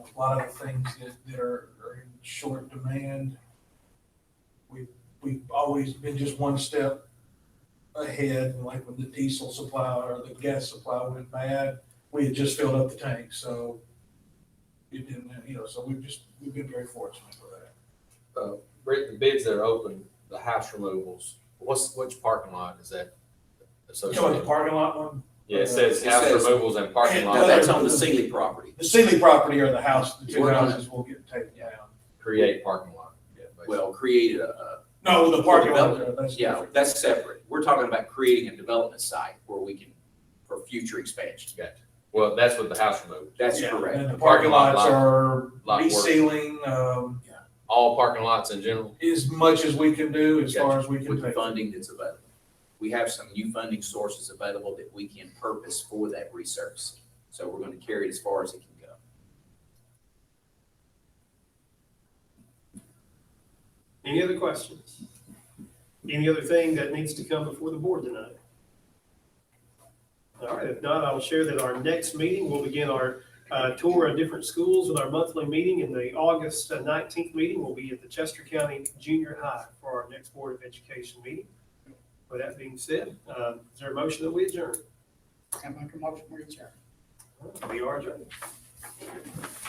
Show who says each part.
Speaker 1: a lot of the things that, that are, are in short demand. We, we've always been just one step ahead, like when the diesel supply or the gas supply went bad, we had just filled up the tank, so it didn't, you know, so we've just, we've been very fortunate for that.
Speaker 2: Britt, the bids that are open, the house removals, what's, which parking lot is
Speaker 1: You know,
Speaker 2: that
Speaker 1: like the
Speaker 2: associated?
Speaker 1: parking lot one,
Speaker 2: Yeah, it says
Speaker 3: It
Speaker 2: house
Speaker 3: says-
Speaker 2: removals and parking
Speaker 3: No,
Speaker 2: lot
Speaker 3: that's on the Sealy property.
Speaker 1: the Sealy property or the house, the two
Speaker 3: We're not-
Speaker 1: houses will get taken down.
Speaker 2: create parking lot. Yeah, basically.
Speaker 3: Well, created a, a-
Speaker 1: No, the parking lot,
Speaker 3: Development.
Speaker 1: that's
Speaker 3: yeah,
Speaker 1: different.
Speaker 3: that's separate. We're talking about creating a development site where we can, for future expansion.
Speaker 2: Gotcha. Well, that's what the house removals,
Speaker 3: That's
Speaker 1: Yeah,
Speaker 3: correct.
Speaker 1: And the parking
Speaker 2: Parking lot,
Speaker 1: lots
Speaker 2: lot-
Speaker 1: are
Speaker 2: lot work.
Speaker 1: resealing, um,
Speaker 2: all parking lots in general,
Speaker 1: as much as we can do, as far as we can
Speaker 3: With the
Speaker 1: take.
Speaker 3: funding that's available. We have some new funding sources available that we can purpose for that resurfacing. So we're going to carry it as far as it can go.
Speaker 4: Any other questions? Any other thing that needs to come before the board tonight? All right, if not, I'll share that our next meeting, we'll begin our uh, tour of different schools with our monthly meeting. And the August uh, nineteenth meeting will be at the Chester County Junior High for our next Board of Education meeting. With that being said, uh, is there a motion that we adjourn?
Speaker 5: I make a motion, we adjourn.
Speaker 4: We are adjourned.